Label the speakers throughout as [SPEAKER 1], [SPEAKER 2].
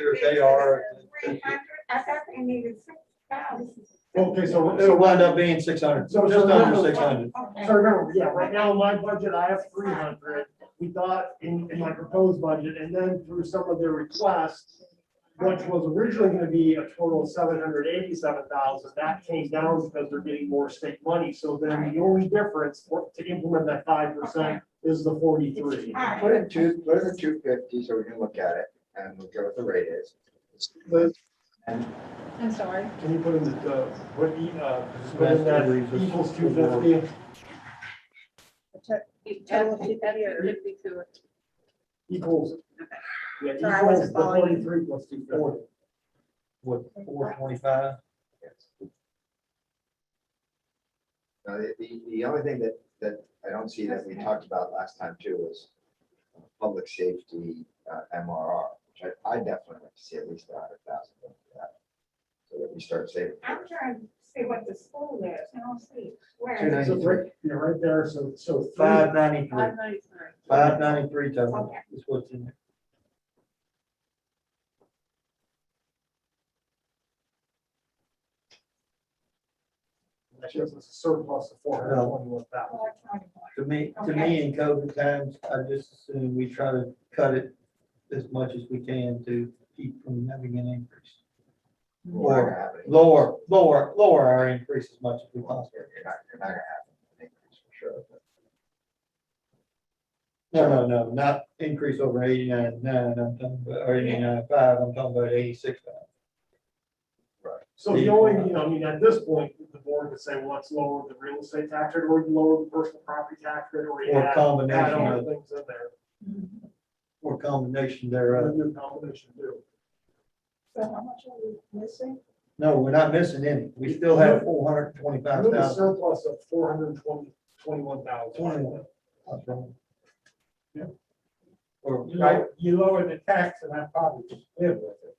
[SPEAKER 1] sure they are.
[SPEAKER 2] Three hundred, I thought they needed six thousand.
[SPEAKER 3] Okay, so.
[SPEAKER 1] It'll wind up being six hundred,
[SPEAKER 3] So- so
[SPEAKER 1] just
[SPEAKER 3] what-
[SPEAKER 1] under six hundred.
[SPEAKER 2] Okay.
[SPEAKER 3] So remember, yeah, right now in my budget, I have three hundred. We thought in, in my proposed budget, and then through some of their requests, which was originally gonna be a total of seven hundred eighty-seven thousand, that came down because they're getting more state money. So then the only difference for- to implement that five percent is the forty-three.
[SPEAKER 2] All right.
[SPEAKER 4] Put in two, put in the two fifty so we can look at it and we'll go what the rate is.
[SPEAKER 3] The-
[SPEAKER 5] I'm sorry.
[SPEAKER 3] Can you put in the, uh, what, the, uh, put in that equals two fifty?
[SPEAKER 5] Total of 250 or 52?
[SPEAKER 3] Equals. Yeah,
[SPEAKER 5] Sorry, I
[SPEAKER 3] equals
[SPEAKER 5] wasn't
[SPEAKER 3] the
[SPEAKER 5] following.
[SPEAKER 3] forty-three plus two forty.
[SPEAKER 1] What, four twenty-five?
[SPEAKER 4] Now, the, the, the only thing that, that I don't see that we talked about last time too was public safety uh, MRR, which I, I definitely want to see at least a hundred thousand. of that, So that we start saving.
[SPEAKER 2] I'm trying to see what the school is, I don't see
[SPEAKER 4] Two
[SPEAKER 2] where.
[SPEAKER 4] ninety-
[SPEAKER 3] So right, yeah, right there, so, so. three-
[SPEAKER 1] Five ninety-three,
[SPEAKER 5] 593.
[SPEAKER 1] five ninety-three total
[SPEAKER 2] Okay.
[SPEAKER 1] is what's in there.
[SPEAKER 3] That gives us a surplus of four hundred and twenty-one thousand.
[SPEAKER 2] Four twenty-one.
[SPEAKER 1] To me, to me, in COVID times, I just assume we try to cut it as much as we can to keep from having an increase.
[SPEAKER 4] We're not gonna have it.
[SPEAKER 1] Lower, lower, lower our increase as much as we
[SPEAKER 4] You're not,
[SPEAKER 1] possibly.
[SPEAKER 4] you're not gonna have an increase for sure. but-
[SPEAKER 1] No, no, no, not increase over eighty-nine, nine, I'm talking about, or eighty-nine, five, I'm talking about eighty-six.
[SPEAKER 3] So the only, you know, I mean, at this point, the board would say, well, let's lower the real estate tax rate, or lower the personal property tax rate, or you
[SPEAKER 1] Or
[SPEAKER 3] add,
[SPEAKER 1] combination
[SPEAKER 3] add other
[SPEAKER 1] of-
[SPEAKER 3] things in there.
[SPEAKER 1] Or combination
[SPEAKER 3] Or
[SPEAKER 1] thereof.
[SPEAKER 3] a new combination too.
[SPEAKER 2] So how much are we missing?
[SPEAKER 1] No, we're not missing any. We still have four hundred and twenty-five
[SPEAKER 3] With a
[SPEAKER 1] thousand.
[SPEAKER 3] surplus of four hundred and twenty, twenty-one thousand.
[SPEAKER 1] 21. Yeah.
[SPEAKER 3] Yeah.
[SPEAKER 1] Or,
[SPEAKER 3] Right, you lower the tax and I probably just live with it.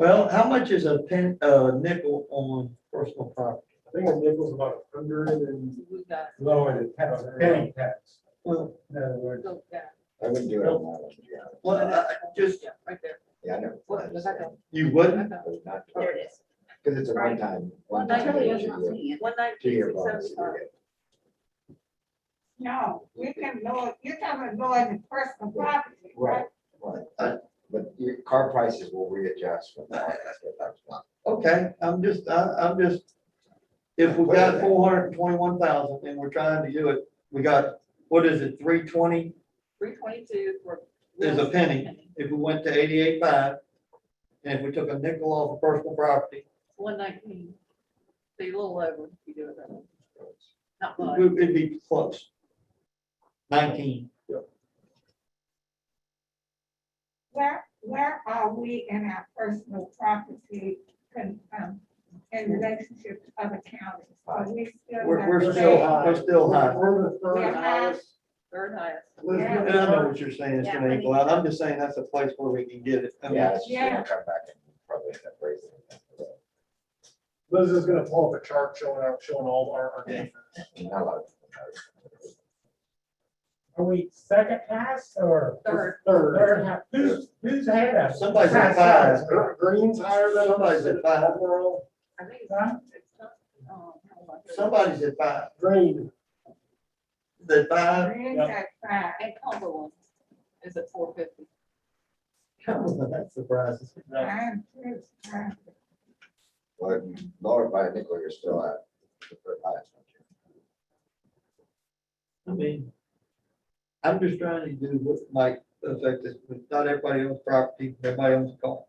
[SPEAKER 1] well, how much is a pen, uh, nickel on personal property?
[SPEAKER 3] I think a nickel's about a hundred and.
[SPEAKER 5] We've got,
[SPEAKER 3] Lower the tax, penny tax.
[SPEAKER 1] Well,
[SPEAKER 3] In other words.
[SPEAKER 5] so, yeah,
[SPEAKER 4] I wouldn't do it on that one, yeah.
[SPEAKER 1] well, I- I just,
[SPEAKER 5] yeah, right there.
[SPEAKER 4] Yeah, I know.
[SPEAKER 5] What was that though?
[SPEAKER 1] you wouldn't?
[SPEAKER 5] Okay.
[SPEAKER 4] I would not do
[SPEAKER 5] There
[SPEAKER 4] it,
[SPEAKER 5] it is.
[SPEAKER 4] Cause it's a one-time, one-time. two-year-
[SPEAKER 5] One ninety-six,
[SPEAKER 4] Two-year bonus. that you get.
[SPEAKER 2] No, you can lower, you're talking about lowering the personal property, right?
[SPEAKER 4] Right, right. But your car prices will readjust when the markets get back to normal.
[SPEAKER 1] Okay, I'm just, I, I'm just, if we got four hundred and twenty-one thousand and we're trying to do it, we got, what is it, three twenty?
[SPEAKER 5] Three twenty-two for.
[SPEAKER 1] There's a penny. If we went to eighty-eight five, and if we took a nickel off of personal property,
[SPEAKER 5] One nineteen. So you're a little over if you do it that way. Not much.
[SPEAKER 1] it- it'd be close. Nineteen.
[SPEAKER 2] Where, where are we in our personal property con- um, in relationship to other counties? Are we still?
[SPEAKER 1] We're, we're
[SPEAKER 2] number
[SPEAKER 1] still,
[SPEAKER 2] eight?
[SPEAKER 1] we're still high.
[SPEAKER 3] uh, We're the third
[SPEAKER 2] Yeah.
[SPEAKER 3] highest.
[SPEAKER 5] Third highest.
[SPEAKER 3] Elizabeth,
[SPEAKER 1] And I know what you're saying, it's
[SPEAKER 5] Yeah.
[SPEAKER 1] gonna equal out. I'm just saying that's a place where we can get it. I mean,
[SPEAKER 4] Yeah, it's just
[SPEAKER 2] Yeah.
[SPEAKER 4] gonna come back and probably end up raising. it.
[SPEAKER 3] Liz is gonna pull up a chart showing our, showing all our, our different-
[SPEAKER 4] Not a lot of.
[SPEAKER 6] Are we second class or?
[SPEAKER 5] Third.
[SPEAKER 3] Third.
[SPEAKER 6] Third, ha- who's, who's had us?
[SPEAKER 1] Somebody's at
[SPEAKER 3] Five.
[SPEAKER 1] five.
[SPEAKER 3] Gre- Green's higher than. us.
[SPEAKER 1] Somebody's at five.
[SPEAKER 3] Overall,
[SPEAKER 5] I think it's.
[SPEAKER 6] Huh?
[SPEAKER 5] it's not, um, how much is it?
[SPEAKER 1] Somebody's at five,
[SPEAKER 3] Green,
[SPEAKER 1] the five.
[SPEAKER 2] Green's at five.
[SPEAKER 5] And Cumberland is at four fifty.
[SPEAKER 1] That surprises me.
[SPEAKER 2] I'm too surprised.
[SPEAKER 4] Well, if you lower by a nickel, you're still at. the third highest, aren't
[SPEAKER 1] I
[SPEAKER 4] you?
[SPEAKER 1] mean, I'm just trying to do what might affect us, but not everybody owns property, everybody owns a car.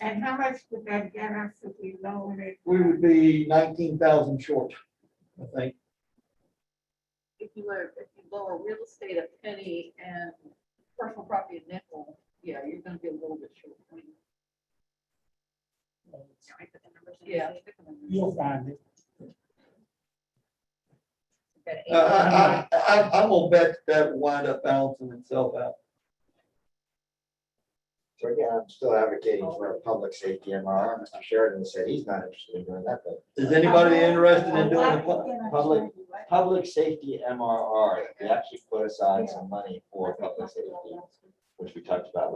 [SPEAKER 2] And how much would that get us if we lowered it?
[SPEAKER 1] We would be nineteen thousand short, I think.
[SPEAKER 5] If you lower, if you lower real estate a penny and personal property a nickel, yeah, you're gonna be a little bit short. Yeah.
[SPEAKER 6] You'll find it.
[SPEAKER 1] I, Uh, I, I, I- I'm gonna bet that will wind up balancing itself out.
[SPEAKER 4] So again, I'm still advocating for a public safety MRR. Mr. Sheridan said he's not interested in doing that, but
[SPEAKER 1] Is anybody interested in doing a pu-
[SPEAKER 4] public, public safety MRR, we actually put aside some money for public safety. which we talked about